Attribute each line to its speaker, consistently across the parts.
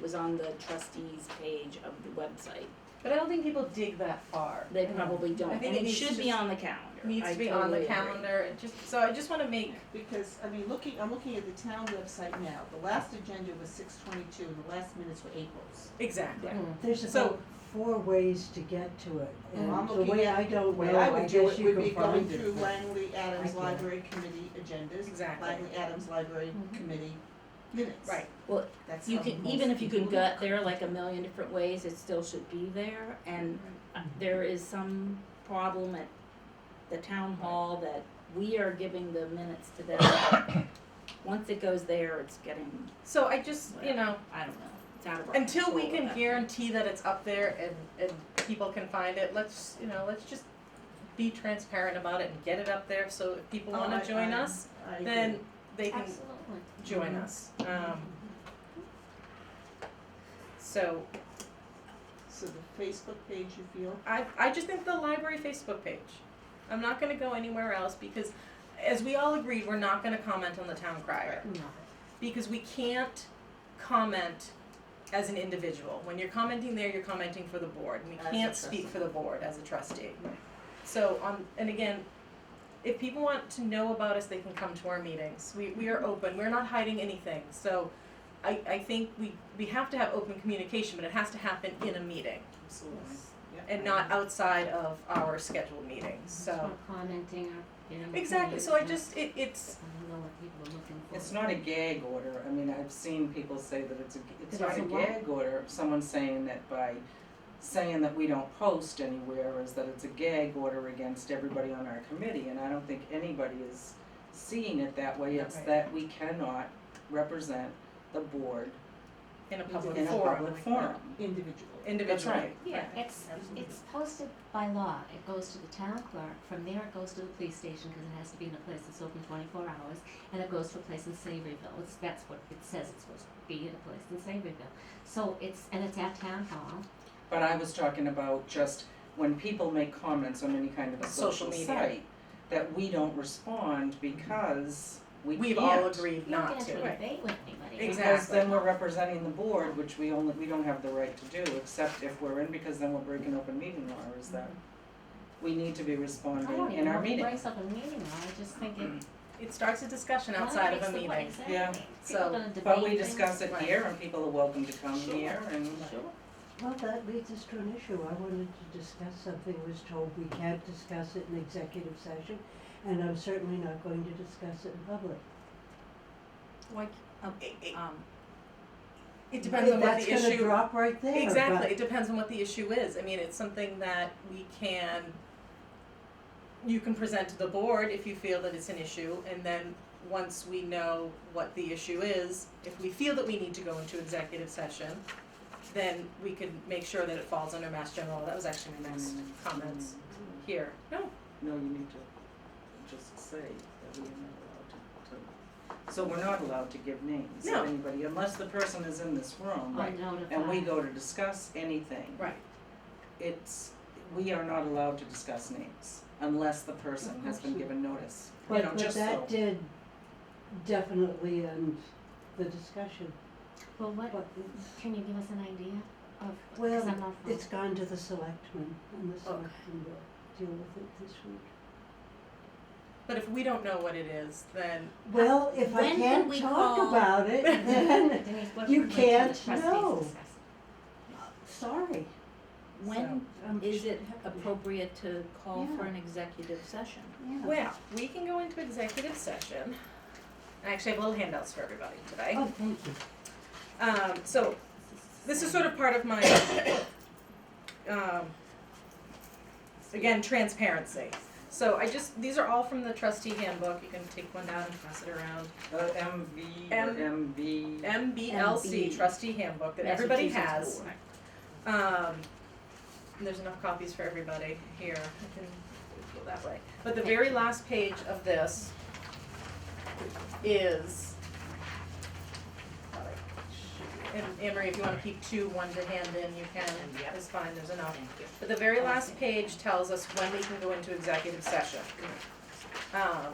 Speaker 1: was on the trustees page of the website.
Speaker 2: But I don't think people dig that far.
Speaker 1: They probably don't,
Speaker 2: Mm-hmm. I think
Speaker 1: and
Speaker 2: it
Speaker 1: it
Speaker 2: needs
Speaker 1: should
Speaker 2: to
Speaker 1: be
Speaker 2: just-
Speaker 1: on the calendar.
Speaker 2: Needs
Speaker 1: I
Speaker 2: to be on the
Speaker 1: totally agree.
Speaker 2: calendar, and just, so I just wanna make,
Speaker 3: Because, I mean, looking, I'm looking at the town website now, the last agenda was six twenty-two and the last minutes were April's.
Speaker 2: exactly.
Speaker 4: There's
Speaker 2: So-
Speaker 4: about four ways to get to it,
Speaker 3: Well, I'm
Speaker 4: and the
Speaker 3: looking
Speaker 4: way
Speaker 3: at-
Speaker 4: I don't
Speaker 3: Way
Speaker 4: know,
Speaker 3: I
Speaker 4: I
Speaker 3: would do
Speaker 4: guess
Speaker 3: it
Speaker 4: you
Speaker 3: would be
Speaker 4: can
Speaker 3: going
Speaker 4: find
Speaker 3: through
Speaker 4: it.
Speaker 3: Langley
Speaker 4: I
Speaker 3: Adams
Speaker 4: can.
Speaker 3: Library Committee agendas.
Speaker 2: Exactly.
Speaker 3: Langley Adams Library
Speaker 4: Mm-hmm.
Speaker 2: Mhm.
Speaker 3: Committee minutes.
Speaker 2: Right.
Speaker 1: Well,
Speaker 3: That's
Speaker 1: You
Speaker 3: how
Speaker 1: can,
Speaker 3: most
Speaker 1: even if you can
Speaker 3: people
Speaker 1: gut there like a million different ways, it still should be there, and uh,
Speaker 2: Mm-hmm.
Speaker 1: there is some problem at the town hall that we are giving the minutes to them. but Once it goes there, it's getting,
Speaker 2: So I just, you know,
Speaker 1: I don't know, it's out of our
Speaker 2: until we
Speaker 1: control
Speaker 2: can
Speaker 1: at that
Speaker 2: guarantee that it's up there and, and people can find it, let's, you know, let's just be transparent about it and get it up there, so if people
Speaker 3: Oh,
Speaker 2: wanna
Speaker 3: I-
Speaker 2: join
Speaker 3: I-
Speaker 2: us,
Speaker 3: I agree.
Speaker 2: then they can
Speaker 1: Absolutely.
Speaker 2: join us. Um, so
Speaker 3: So the Facebook page, you feel?
Speaker 2: I, I just think the library Facebook page. I'm not going to go anywhere else because, as we all agreed, we're not going to comment on the town crier because we can't comment as an individual. When you're commenting there, you're commenting for the board. and We
Speaker 3: As a
Speaker 2: can't speak
Speaker 3: trustee.
Speaker 2: for the board as a trustee.
Speaker 3: Right.
Speaker 2: So on and again, if people want to know about us, they can come to our meetings. We we are open. We're not hiding anything. So. I, I think we, we have to have open communication, but it has to happen in a meeting
Speaker 3: Absolutely. Yep.
Speaker 2: and not outside of our scheduled meetings, so.
Speaker 5: Stop commenting or, you know.
Speaker 2: Exactly, so I just, it, it's,
Speaker 5: I don't know what people are looking for.
Speaker 6: It's not a gag order, I mean, I've seen people say that it's a, it's
Speaker 5: It
Speaker 6: not a
Speaker 5: isn't what?
Speaker 6: gag order, someone saying that by saying that we don't post anywhere is that it's a gag order against everybody on our committee, and I don't think anybody is seeing it that way, it's
Speaker 2: Right.
Speaker 6: that we cannot represent the board
Speaker 2: in a public
Speaker 6: in a
Speaker 2: forum,
Speaker 6: public forum.
Speaker 3: Individual.
Speaker 2: individually.
Speaker 6: right.
Speaker 5: Yeah, it's,
Speaker 3: Absolutely.
Speaker 5: it's posted by law, it goes to the town clerk, from there it goes to the police station, cause it has to be in a place that's open twenty-four hours, and it goes to a place in Savoryville, it's, that's what it says it's supposed to be, in a place in Savoryville. So it's, and it's at town hall,
Speaker 6: But I was talking about just when people make comments on any kind of a
Speaker 2: Social
Speaker 6: social
Speaker 2: media.
Speaker 6: site, that we don't respond because we can't.
Speaker 2: We've all agreed
Speaker 5: you don't
Speaker 2: not
Speaker 5: get
Speaker 2: to.
Speaker 5: into a debate with anybody.
Speaker 2: Exactly.
Speaker 6: Because then we're representing the board, which we only, we don't have the right to do, except if we're in, because then we're breaking open meeting law, is that
Speaker 2: Mm-hmm.
Speaker 6: we need to be
Speaker 5: I
Speaker 2: Oh,
Speaker 6: responding
Speaker 5: don't even
Speaker 6: in
Speaker 5: know
Speaker 6: our
Speaker 5: if it
Speaker 6: meeting.
Speaker 5: breaks up a meeting law, I just think it,
Speaker 2: It starts a discussion
Speaker 5: Well,
Speaker 2: outside of
Speaker 5: it's
Speaker 2: a
Speaker 5: the way-
Speaker 2: meeting.
Speaker 5: exactly.
Speaker 6: Yeah.
Speaker 5: People
Speaker 2: So-
Speaker 5: gonna
Speaker 6: But we
Speaker 5: debate things.
Speaker 6: discuss it
Speaker 2: Right.
Speaker 6: here and people are welcome to come
Speaker 3: Sure.
Speaker 6: here and
Speaker 4: Well, that leads us to an issue. I wanted to discuss something, was told we can't discuss it in executive session, and I'm certainly not going to discuss it in public.
Speaker 1: Like,
Speaker 2: It, it,
Speaker 1: um,
Speaker 2: it depends on what the
Speaker 4: That's gonna
Speaker 2: issue,
Speaker 4: drop right there, but-
Speaker 2: exactly, it depends on what the issue is, I mean, it's something that we can, you can present to the board if you feel that it's an issue, and then once we know what the issue is, if we feel that we need to go into executive session, then we can make sure that it falls under mass general, that was actually my next
Speaker 4: Mm.
Speaker 2: comments here. No,
Speaker 6: Mm-hmm. No, you need to just say that we are not allowed to, to, so we're not allowed to give names
Speaker 2: No.
Speaker 6: of anybody, unless the person is in this room.
Speaker 5: I'll notify.
Speaker 6: And we go to discuss anything.
Speaker 2: Right.
Speaker 6: It's, we are not allowed to discuss names unless the person has been given notice, you know,
Speaker 4: But, but
Speaker 6: just so.
Speaker 4: that did definitely end the discussion,
Speaker 5: Well, what,
Speaker 4: but
Speaker 5: can you give us an idea of,
Speaker 4: Well,
Speaker 5: cause I'm not from,
Speaker 4: it's gone to the selectmen, and the
Speaker 2: Oh.
Speaker 4: selectmen will deal with it this week.
Speaker 2: but if we don't know what it is, then
Speaker 4: Well, if I
Speaker 1: When did
Speaker 4: can't
Speaker 1: we
Speaker 4: talk
Speaker 1: call-
Speaker 4: about it, then,
Speaker 5: Denise, what
Speaker 4: you
Speaker 5: would like the
Speaker 4: can't
Speaker 5: trustees discuss?
Speaker 4: know. sorry.
Speaker 1: When
Speaker 4: I'm
Speaker 1: is it
Speaker 4: happy.
Speaker 1: appropriate to call for
Speaker 4: Yeah.
Speaker 1: an executive session?
Speaker 4: Yeah.
Speaker 2: Well, we can go into executive session. I actually have little handouts for everybody today.
Speaker 4: Oh, thank you.
Speaker 2: Um, so, this is sort of part of my, um, again, transparency. So I just, these are all from the trustee handbook, you can take one down and pass it around.
Speaker 6: Uh, MV,
Speaker 2: M-
Speaker 6: MV.
Speaker 2: MBLC
Speaker 1: MB.
Speaker 2: trustee handbook that everybody
Speaker 1: Massachusetts
Speaker 2: has.
Speaker 1: Board.
Speaker 2: Um, there's enough copies for everybody here. I can go that way. But the very last page of this is. And Anne Marie, if you wanna keep two, one to hand in, you can, it's fine, there's enough. But the very last page tells us when we can go into executive session. Um,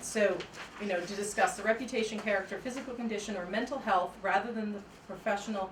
Speaker 2: so, you know, to discuss the reputation, character, physical condition, or mental health rather than the professional